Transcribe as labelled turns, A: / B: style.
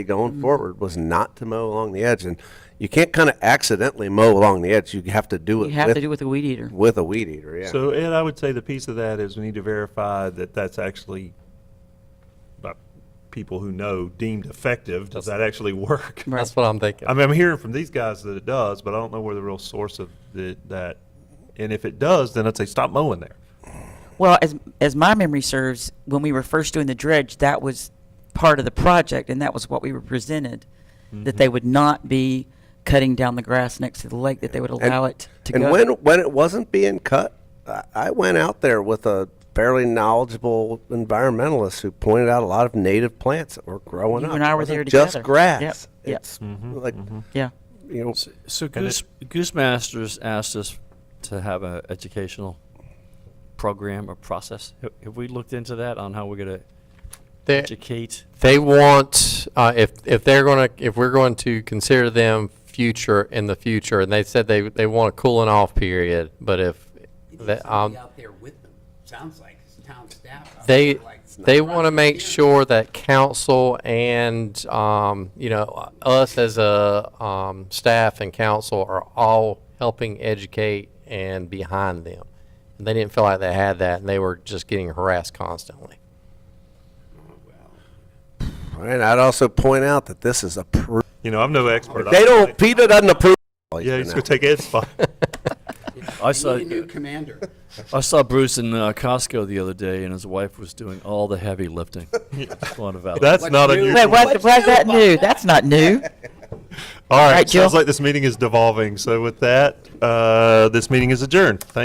A: going
B: Mm.
A: forward was not to mow along the edge. And you can't kind of accidentally mow along the edge. You have to do it
B: You have to do
A: with,
B: it with a weed eater.
A: with a weed eater, yeah.
C: So Ed, I would say the piece of that is we need to verify that that's actually by people who know deemed effective. Does that actually work?
B: Right.
D: That's what I'm thinking.
C: I mean, I'm hearing from these guys that it does, but I don't know where the real source of the, that. And if it does, then I'd say stop mowing there.
B: Well, as, as my memory serves, when we were first doing the dredge, that was part of the project, and that was what we were presented,
A: Mm-hmm.
B: that they would not be cutting down the grass next to the lake, that they would allow it to
A: and
B: go.
A: when when it wasn't being cut, I, I went out there with a fairly knowledgeable environmentalist who pointed out a lot of native plants that were growing
B: You
A: up.
B: and I
A: It
B: were there
A: wasn't Just
B: together.
A: grass.
B: Yep, yep.
A: It's like
B: Yeah,
A: you know,
D: So Goose, Goose Masters asked us to have an educational program or process. Have- Have we looked into that on how we're going to
E: They,
D: educate?
E: they want, uh, if, if they're gonna, if we're going to consider them future, in the future, and they said they, they want a cooling off period, but if,
F: You need
E: that,
F: somebody
E: um,
F: out there with them, sounds like, it's town staff. out
E: they,
F: there, like,
E: they want to
F: right
E: make
F: here.
E: sure that council and, um, you know, us as a, um, staff and council are all helping educate and behind them. And they didn't feel like they had that, and they were just getting harassed constantly.
A: and I'd also point out that this is approved.
C: You know, I'm no expert.
A: They don't. Peter doesn't approve.
C: Yeah, he's gonna take Ed's spot.
D: I
F: You
D: saw,
F: need a new commander.
D: I saw Bruce in uh, Costco the other day, and his wife was doing all the heavy lifting. Just wanted to validate.
C: That's
F: What's
C: not
F: new?
C: unusual.
B: Wait, what, why's that new? That's not new.
C: All right,
B: right, Jill.
C: sounds like this meeting is devolving. So with that, uh, this meeting is adjourned. Thank